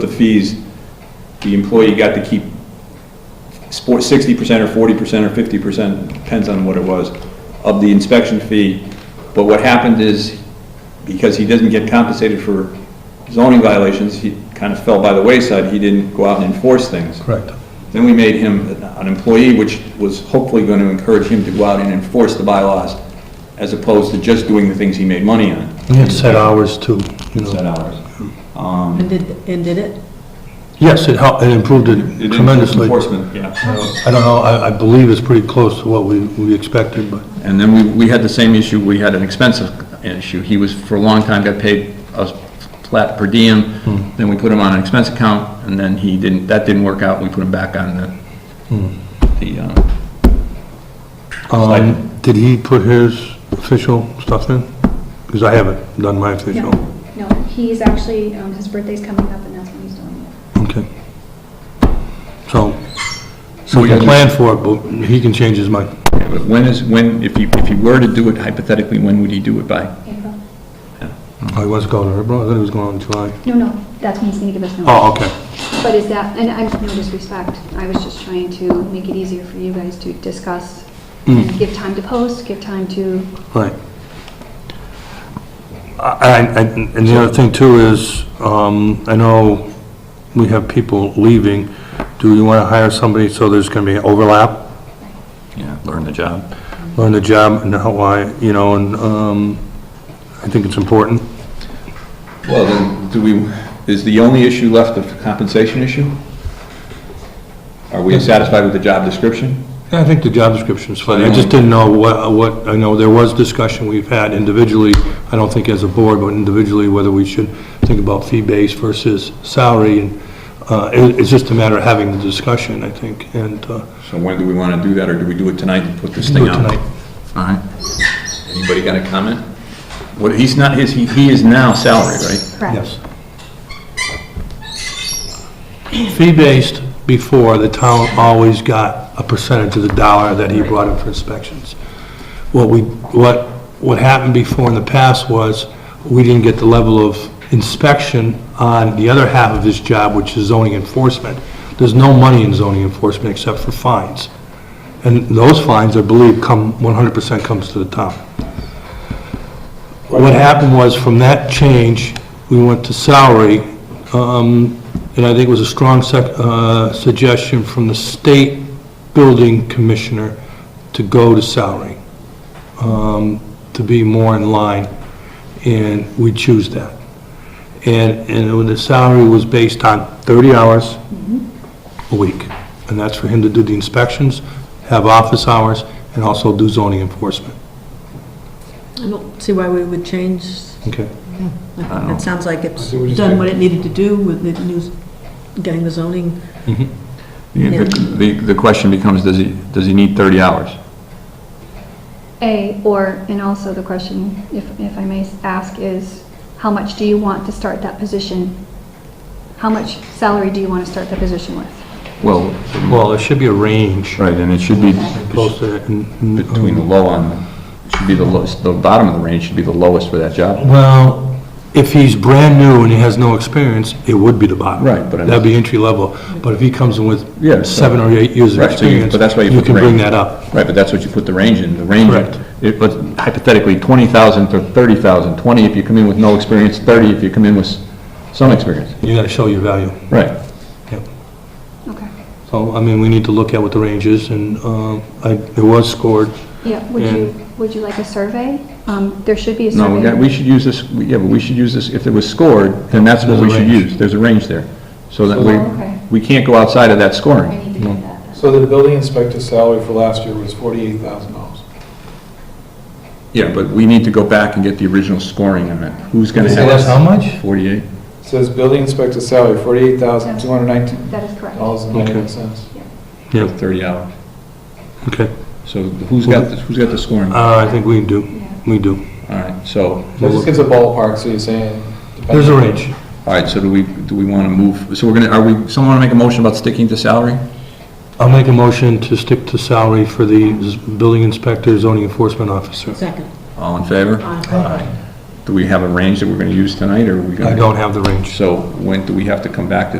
the fees, the employee got to keep sixty percent or forty percent or fifty percent, depends on what it was, of the inspection fee. But what happened is, because he doesn't get compensated for zoning violations, he kind of fell by the wayside, he didn't go out and enforce things. Correct. Then we made him an employee, which was hopefully going to encourage him to go out and enforce the bylaws, as opposed to just doing the things he made money on, We had set hours too, you know. set hours. And did, and did it? Yes, it helped, it improved It it is tremendously. Enforcement, yeah. I don't know, I, I believe it's pretty close to what we, we expected, but And then we, we had the same issue, we had an expensive issue. He was, for a long time, got paid a flat per diem, Hmm. then we put him on an expense account, and then he didn't, that didn't work out, we put him back on the, Hmm. the, uh, Um, did he put his official stuff in? Because I haven't done my No, official. no, he's actually, um, his birthday's coming up and that's when he's doing it. Okay. So, so we can plan for it, but he can change his mind. yeah, but when is, when, if you, if you were to do it hypothetically, when would he do it by? April. Oh, he was going to April, I thought he was going in July. No, no, that's when he's gonna give us notice. Oh, okay. But is that, and I'm, no disrespect, I was just trying to make it easier for you guys to discuss, Hmm. and give time to post, give time to, Right. I- I- I- And the other thing too is, um, I know we have people leaving. Do you want to hire somebody so there's going to be overlap, Yeah, learn the job. learn the job and how, why, you know, and um, I think it's important. Well, then, do we, is the only issue left the compensation issue? Are Hmm. we satisfied with the job description? Yeah, I think the job description's fine. I just didn't know what, what, I know there was discussion we've had individually, I don't think as a board, but individually, whether we should think about fee-based versus salary. And uh, it- It's just a matter of having the discussion, I think, and uh, So when do we want to do that, or do we do it tonight and put this do thing it out? tonight. All right. Anybody got a comment? What, he's not, his, he, he is now salary, right? correct? Yes. Fee-based, before, the town always got a percentage of the dollar that he brought in for inspections. What we, what, what happened before in the past was, we didn't get the level of inspection on the other half of his job, which is zoning enforcement. There's no money in zoning enforcement except for fines. And those fines, I believe, come, 100% comes to the town. What happened was, from that change, we went to salary, um, and I think it was a strong sec- uh, suggestion from the state building commissioner to go to salary, um, to be more in line, and we choose that. And, and when the salary was based on 30 hours a week, and that's for him to do the inspections, have office hours, and also do zoning enforcement, I don't see why we would change. okay? It sounds like it's we just done what it needed to do with the news, getting the zoning. The, the question becomes, does he, does he need thirty hours? A, or, and also the question, if, if I may ask, is how much do you want to start that position? How much salary do you want to start that position with? Well, Well, there should be a range. right, and it should be posted it in... between the low on, should be the lowest, the bottom of the range should be the lowest for that job. Well, if he's brand new and he has no experience, it would be the bottom. Right, but I'm- That'd be entry level. But if he comes in Yeah, so- with seven or eight years of Right, so you- experience, but that's why you you put the can bring range. that up. Right, but that's what you put the range in, the range. Correct. It, but hypothetically, twenty thousand to thirty thousand, twenty if you come in with no experience, thirty if you come in with s- some experience. You gotta show your value. Right. Yep. Okay. So, I mean, we need to look at what the range is, and um, I- it was scored. Yeah, would you, would you like a survey? Um, There should be a survey. No, we got, we should use this, we- yeah, but we should use this, if it was scored, then that's what we should use, there's a range there. So that we, Oh, okay. we can't go outside of that I scoring. need to get that. So the building inspector's salary for last year was forty-eight thousand dollars. Yeah, but we need to go back and get the original scoring on it. Who's gonna have that? much? Forty-eight? Says building inspector's salary, forty-eight thousand, two hundred nineteen That is correct. dollars and ninety-one cents. Yeah, Thirty hours. okay. So who's got, the- who's got the scoring? All Uh, I think we do, Yeah. we do. right, so, That just gives a ballpark, so you're saying. There's a range. all right, so do we, do we wanna move, so we're gonna, are we, someone wanna make a motion about sticking to salary? I'll make a motion to stick to salary for the z- building inspector, zoning enforcement officer. Second. All in favor? Aye. Do we have a range that we're gonna use tonight, or are we gonna? I don't have the range. So when do we have to come back to